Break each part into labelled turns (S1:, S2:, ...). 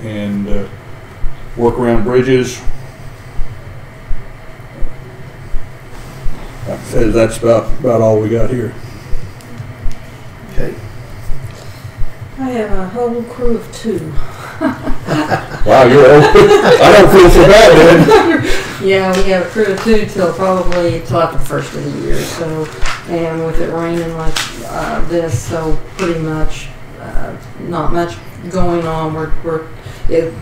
S1: and uh, work around bridges. Like I said, that's about, about all we got here.
S2: Okay.
S3: I have a whole crew of two.
S1: Wow, you're old. I don't feel so bad then.
S3: Yeah, we have a crew of two till probably till after the first of the year. So, and with it raining like uh, this, so pretty much uh, not much going on. We're we're it,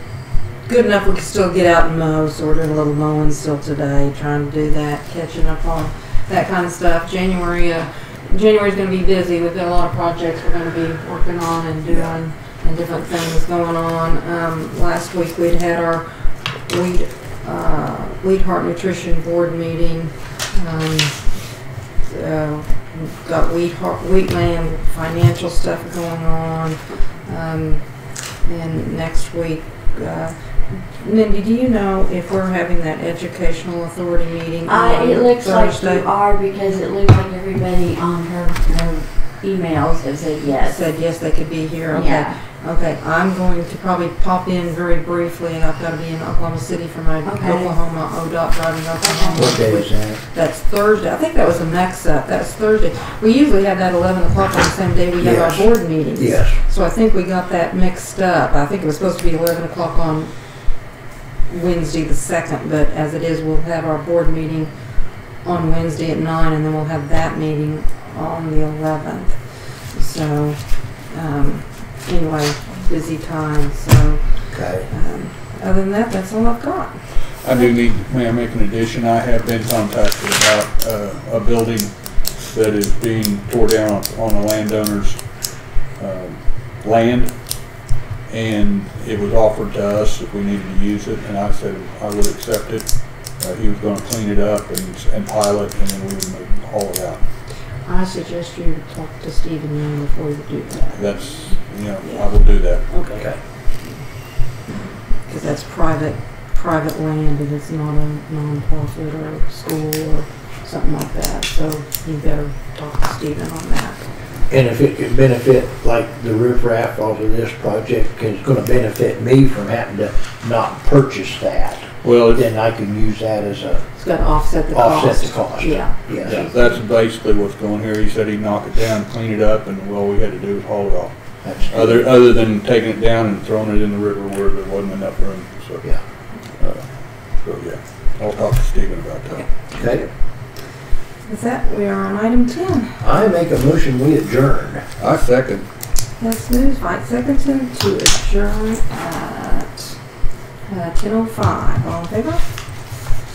S3: good enough. We can still get out and mow. So we're doing a little mowing still today, trying to do that, catching up on that kind of stuff. January, uh, January's going to be busy. We've got a lot of projects we're going to be working on and doing. And different things going on. Um, last week we'd had our weed uh, Wheat Heart Nutrition Board meeting. Um, uh, we've got Wheat Heart, Wheatland financial stuff going on. Um, and next week, uh, Mindy, do you know if we're having that educational authority meeting
S4: I,
S3: on
S4: Uh, it looks like
S3: Thursday?
S4: you are because it looks like everybody on her, her emails has said yes.
S3: Said yes, they could be here. Okay.
S4: Yeah.
S3: Okay, I'm going to probably pop in very briefly. I've got to be in Oklahoma City for my
S4: Okay.
S3: Oklahoma ODOT driving Oklahoma.
S2: What day is that?
S3: That's Thursday. I think that was a mix up. That's Thursday. We usually have that eleven o'clock on the same day we have
S2: Yes.
S3: our board meetings.
S2: Yes.
S3: So I think we got that mixed up. I think it was supposed to be eleven o'clock on Wednesday the second, but as it is, we'll have our board meeting on Wednesday at nine, and then we'll have that meeting on the eleventh. So, um, anyway, busy time, so,
S2: Okay.
S3: um, other than that, that's all I've got.
S1: I do need, may I make an addition? I have been contacted about uh, a building that is being tore down on a landowner's um, land. And it was offered to us if we needed to use it, and I said I would accept it. Uh, He was gonna clean it up and and pile it, and then we would haul it out.
S3: I suggest you talk to Stephen Young before you do that.
S1: That's, you know, I will do that.
S3: Okay.
S2: Okay.
S3: Because that's private, private land and it's not a nonprofit or school or something like that. So you better talk to Stephen on that.
S2: And if it could benefit, like the roof raft off of this project, 'cause it's gonna benefit me from having to not purchase that,
S1: Well,
S2: then I can use that as a
S3: It's got to offset the cost.
S2: offset to cost.
S3: Yeah.
S1: Yeah,
S2: Yes,
S1: that's basically what's going here. He said he'd knock it down, clean it up, and all we had to do was haul it off.
S2: that's,
S1: Other, other than taking it down and throwing it in the river where there wasn't enough room, so.
S2: Yeah.
S1: Uh, So, yeah, I'll talk to Stephen about that.
S2: okay.
S3: With that, we are on item 10.
S2: I make a motion, we adjourn.
S1: I second.
S3: Hess moves, Mike Sickerton to adjourn at uh, 10:05. All in favor?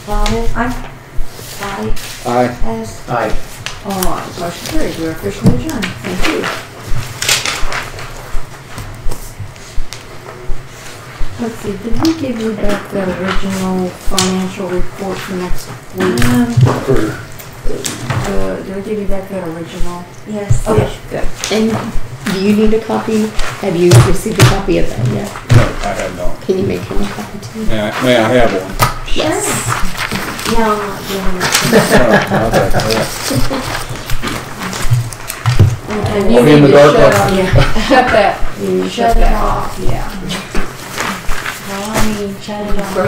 S4: Robert,
S3: Aye.
S4: I,
S1: Aye.
S4: S.
S2: Aye.
S3: All right, motion carried. We're officially adjourned. Thank you. Let's see, did we give you back the original financial report for next week?
S2: For,
S3: Uh, did we give you back that original?
S4: Yes.
S3: Okay, good.
S5: And do you need a copy? Have you received a copy of that yet?
S1: No, I have not.
S5: Can you make him a copy too?
S1: May I, may I have one?
S5: Yes.
S4: No, I'm not doing it.
S1: No, I'll take that.
S4: And
S1: I'll
S4: you
S1: be in
S4: need
S1: the
S4: to
S1: dark one.
S4: shut up, yeah.
S3: Shut that.
S4: Shut it off, yeah. Well, I mean, shut it off.